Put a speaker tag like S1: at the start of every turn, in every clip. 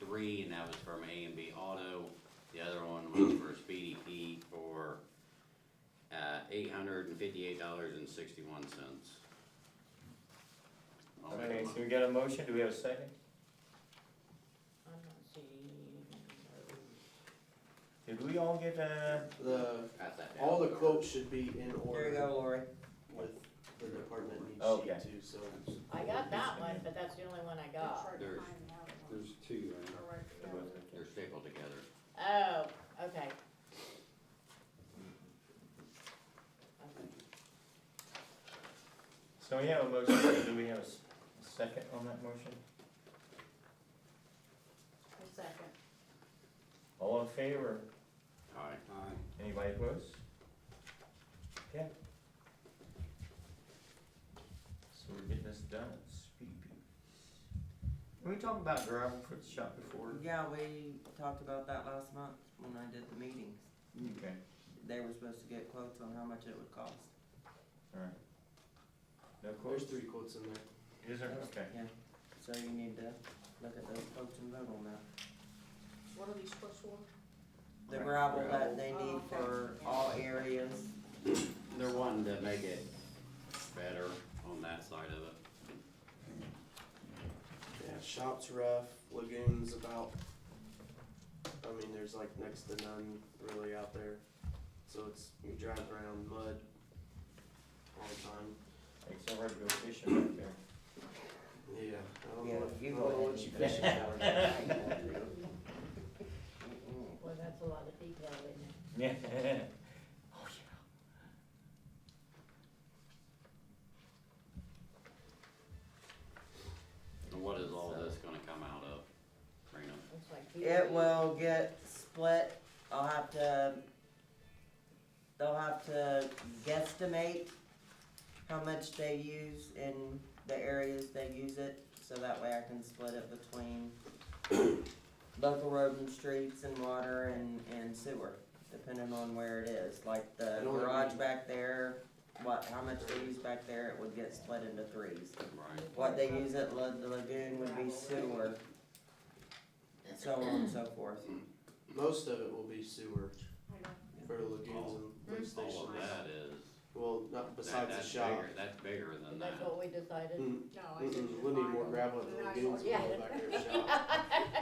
S1: three, and that was from A and B Auto. The other one was for Speedy P for, uh, eight hundred and fifty-eight dollars and sixty-one cents.
S2: Okay, so we got a motion, do we have a second?
S3: I'm not seeing.
S2: Did we all get uh, a,
S4: The,
S1: Pass that down.
S4: all the quotes should be
S3: There
S4: in
S3: you
S4: order
S3: go, Lori.
S4: with the department
S2: Okay.
S4: needs sheet too, so.
S3: I got that one, but that's the only one I got.
S1: There's,
S5: There's two, right?
S1: they're stapled together.
S3: Oh, okay. Okay.
S2: so we have a motion, do we have a s- a second on that motion?
S3: A second.
S2: All in favor,
S1: All right.
S5: Aye.
S2: anybody opposed? Okay. So we're getting this done, speed. Can we talk about gravel for the shop before?
S6: Yeah, we talked about that last month when I did the meetings.
S2: Okay.
S6: They were supposed to get quotes on how much it would cost.
S2: Alright. No
S4: There's
S2: quotes?
S4: three quotes in there.
S2: Is there? Okay.
S6: Yeah, so you need to look at those quotes and vote on that.
S3: What are these quotes for?
S6: The
S2: Right.
S6: gravel that they
S3: Gravel.
S6: need for all areas.
S1: They're wanting to make it better on that side of it.
S4: Yeah, shop's rough, lagoon's about, I mean, there's like next to none really out there. So it's, you drive around mud all the time.
S2: It's so hard to go fishing right there.
S4: Yeah, I don't
S6: Yeah,
S4: know what, I
S6: you
S4: don't know
S6: go
S4: what
S6: ahead
S4: you
S6: and-
S4: fishing for.
S6: Mm-mm.
S3: Well, that's a lot of detail, isn't it?
S2: Yeah. Oh,
S1: And what is all this gonna come out of, Rena?
S3: It's like.
S6: It will get split, I'll have to, they'll have to guesstimate how much they use in the areas they use it, so that way I can split it between local road and streets and water and, and sewer, depending on where it is, like the
S4: I know what you
S6: garage
S4: mean.
S6: back there, what, how much they use back there, it would get split into threes.
S1: Right,
S6: What they use at La- the lagoon would be sewer, so on and so forth.
S4: Most of it will be sewer for the lagoons and lift
S1: all
S4: stations.
S1: of that is,
S4: Well, not
S1: that,
S4: besides the
S1: that's
S4: shop.
S1: bigger, that's bigger than that.
S3: That's what we decided.
S4: Mm, Mm-mm, we'll need more gravel at the lagoons and all back there at the shop.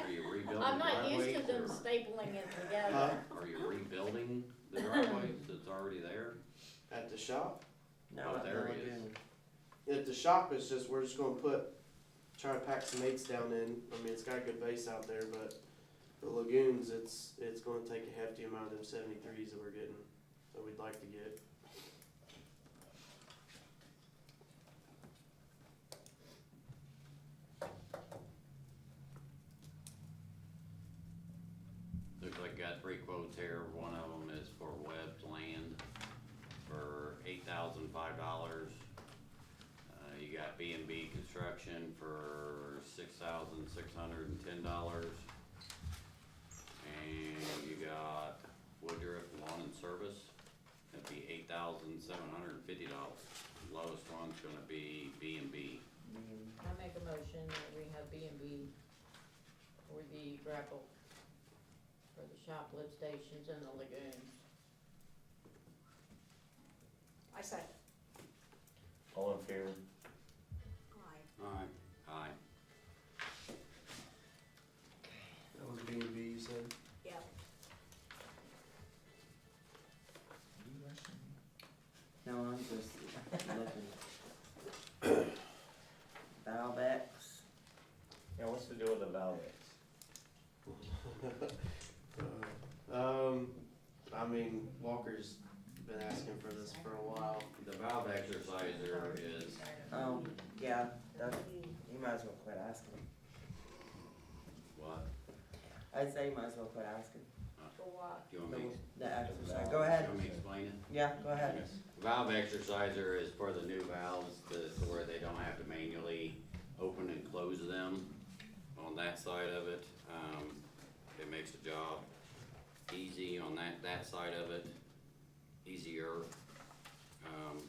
S1: Are you Hmm. rebuilding
S3: I'm not used to them
S1: driveways
S3: stapling it
S4: Huh?
S3: together.
S1: or are you rebuilding the driveways that's already there?
S4: At the shop?
S6: No,
S1: Oh,
S6: at the
S1: there he is.
S6: lagoon.
S4: At the shop, it's just, we're just gonna put, try to pack some eights down in. I mean, it's got a good base out there, but the lagoons, it's, it's gonna take a hefty amount of them seventy-threes that we're getting, that we'd like to get.
S1: Looks like got three quotes here, one of them is for Webb's Land for eight thousand five dollars. Uh, you got B and B Construction for six thousand six hundred and ten dollars. And you got Woodruff Lawn and Service, that'd be eight thousand seven hundred and fifty dollars. Lowest one's gonna be B and B.
S2: Mm-hmm.
S3: I make a motion that we have B and B for the grapple, for the shop lift stations and the lagoons.
S5: I said,
S2: All in favor?
S5: aye.
S1: Aye. Aye.
S4: That was B and B, you said?
S6: No, I'm just looking. Valvex,
S2: Yeah, what's the deal with the valves?
S4: Um, I mean, Walker's been asking for this for a while.
S1: The valve exerciser is
S6: um, yeah, that, you might as well quit asking.
S1: what?
S6: I say you might as well quit asking.
S3: For what?
S1: Do you want me
S6: The- The exercise,
S2: valve.
S6: go
S1: do you
S6: ahead,
S1: want me to explain it?
S6: yeah, go ahead.
S1: Valve exerciser is for the new valves, to, to where they don't have to manually open and close them on that side of it. Um, it makes the job easy on that, that side of it, easier. Um,